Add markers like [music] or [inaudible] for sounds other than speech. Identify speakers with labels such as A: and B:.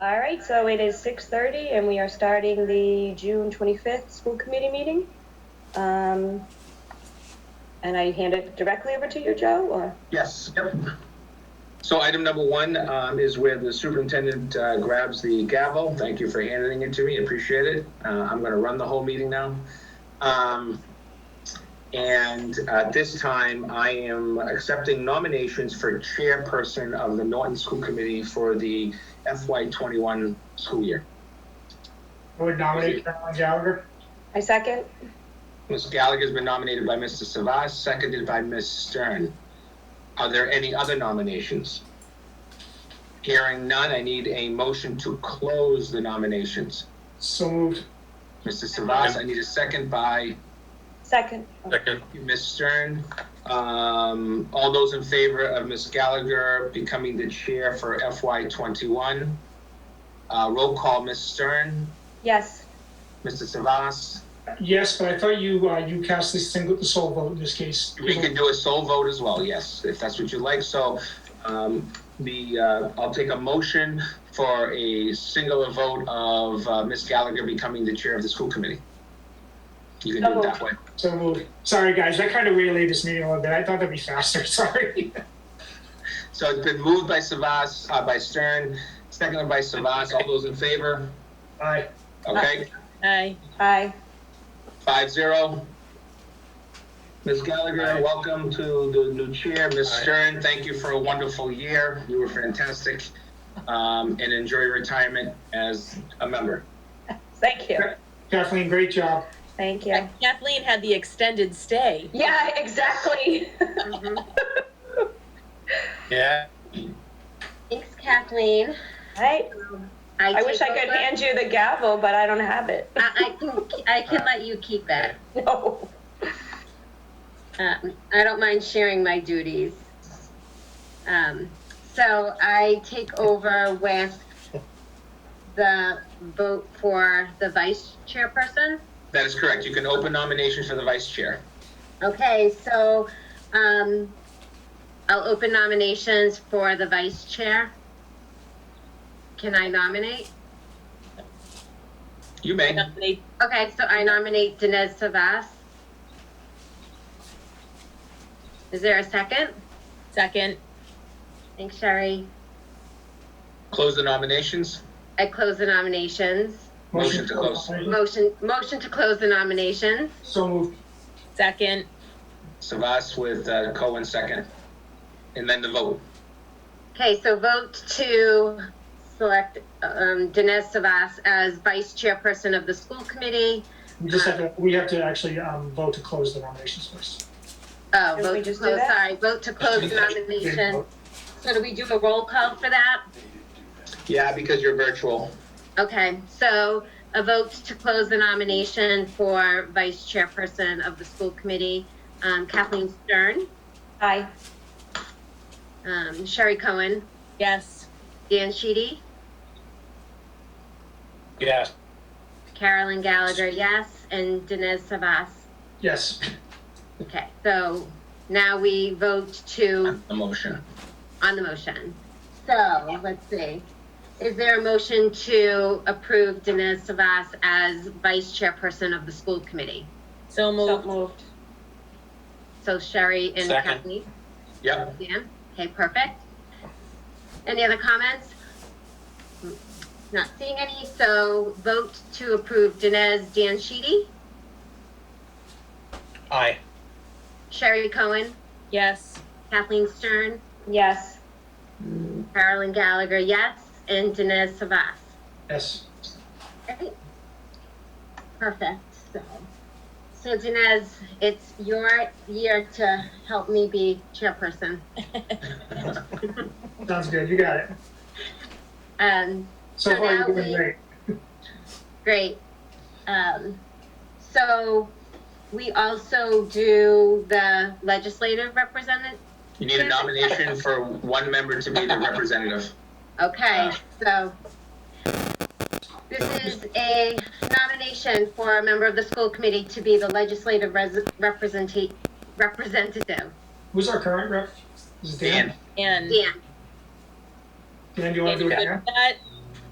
A: All right, so it is 6:30 and we are starting the June 25th school committee meeting. Um, And I hand it directly over to you, Joe, or?
B: Yes, yep. So item number one um, is where the superintendent uh, grabs the gavel. Thank you for handing it to me, appreciate it. Uh, I'm going to run the whole meeting now. Um, And at this time, I am accepting nominations for chairperson of the Norton School Committee for the FY21 school year.
C: I would nominate Carolyn Gallagher.
A: I second?
B: Ms. Gallagher's been nominated by Mr. Savas, seconded by Ms. Stern. Are there any other nominations? Hearing none, I need a motion to close the nominations.
C: So moved.
B: Mr. Savas, I need a second by
A: Second.
D: Second,
B: Ms. Stern. Um, all those in favor of Ms. Gallagher becoming the chair for FY twenty-one? Uh, roll call, Ms. Stern,
A: Yes,
B: Mr. Savas.
C: Yes, but I thought you, uh, you cast this thing with the sole vote in this
B: [laughs]
C: case.
B: We can do a sole vote as well, yes, if that's what you like. So um, the, uh, I'll take a motion for a singular vote of uh, Ms. Gallagher becoming the chair of the school committee. You can do it that way.
C: So moved. Sorry, guys, I kind of relayed this meeting a little bit. I thought that'd be faster, [laughs] sorry.
B: So it's been moved by Savas, uh, by Stern, seconded by Savas. All those in favor?
C: Aye.
B: Okay,
E: Aye.
A: aye.
B: five zero. Ms. Gallagher, welcome to the new chair. Ms. Stern, thank you for a wonderful year. You were fantastic. Um, And enjoy retirement as a member.
A: Thank you,
C: Kathleen, great job.
A: thank you.
E: Kathleen had the extended stay.
A: Yeah, [laughs] exactly.
F: Mm-hmm.
B: Yeah.
F: Thanks, Kathleen.
A: Right, I wish I
F: take
A: could
F: over.
A: hand you the gavel, but I don't have it.
F: I, I can, I can let you keep it.
A: [laughs] No.
F: Um, I don't mind sharing my duties. Um, so I take over with the vote for the vice chairperson.
B: That is correct. You can open nominations for the vice chair.
F: Okay, so, um, I'll open nominations for the vice chair. Can I nominate?
B: You may.
E: Nominate-
F: Okay, so I nominate Dinesh Savas. Is there a second?
E: Second,
F: Thanks, Sherry.
B: Close the nominations.
F: I close the nominations.
B: Motion to close.
C: Mm-hmm.
F: Motion, motion to close the nominations.
C: So moved.
E: second,
B: Savas with uh, Cohen second. And then the vote.
F: Okay, so vote to select um, Dinesh Savas as vice chairperson of the school committee.
C: We just have to, we have to actually, um, vote to close the nominations first.
F: Oh,
A: we
F: vote to
A: just do
F: close,
A: that?
F: sorry, vote to close the nomination. So do we do a roll call for that?
B: Yeah, because you're virtual.
F: Okay, so a vote to close the nomination for vice chairperson of the school committee, um, Kathleen Stern,
A: Aye,
F: um, Sherry Cohen,
E: yes.
F: Dan Sheedy,
D: yes.
F: Carolyn Gallagher, yes, and Dinesh Savas.
C: Yes,
F: Okay, so now we vote to,
B: The motion.
F: on the motion. So, let's see. Is there a motion to approve Dinesh Savas as vice chairperson of the school committee?
E: So
A: so
E: moved.
A: moved.
F: So Sherry and
D: Second.
F: Kathleen?
B: Yep. [laughs]
F: Yeah, okay, perfect. Any other comments? Not seeing any, so vote to approve Dinesh Danshidi,
D: Aye.
F: Sherry Cohen,
E: Yes.
F: Kathleen Stern,
A: Yes,
F: Mm. Carolyn Gallagher, yes, and Dinesh Savas.
C: yes.
F: Great. Perfect, so. So Dinesh, it's your year to help me be chairperson.
C: Sounds good, you got it.
F: Um,
C: So
F: So
C: far,
F: now
C: you're doing
F: we-
C: great.
F: Great. Um, so we also do the legislative representative.
B: You need a nomination for one member to be the representative.
F: Okay, so this is a nomination for a member of the school committee to be the legislative res- representa- representative.
C: Who's our current rep? Is it Dan?
B: Dan,
E: And
F: Dan,
C: Dan, do you want
E: if
C: to
E: you
C: do it
E: could
C: now?
E: put that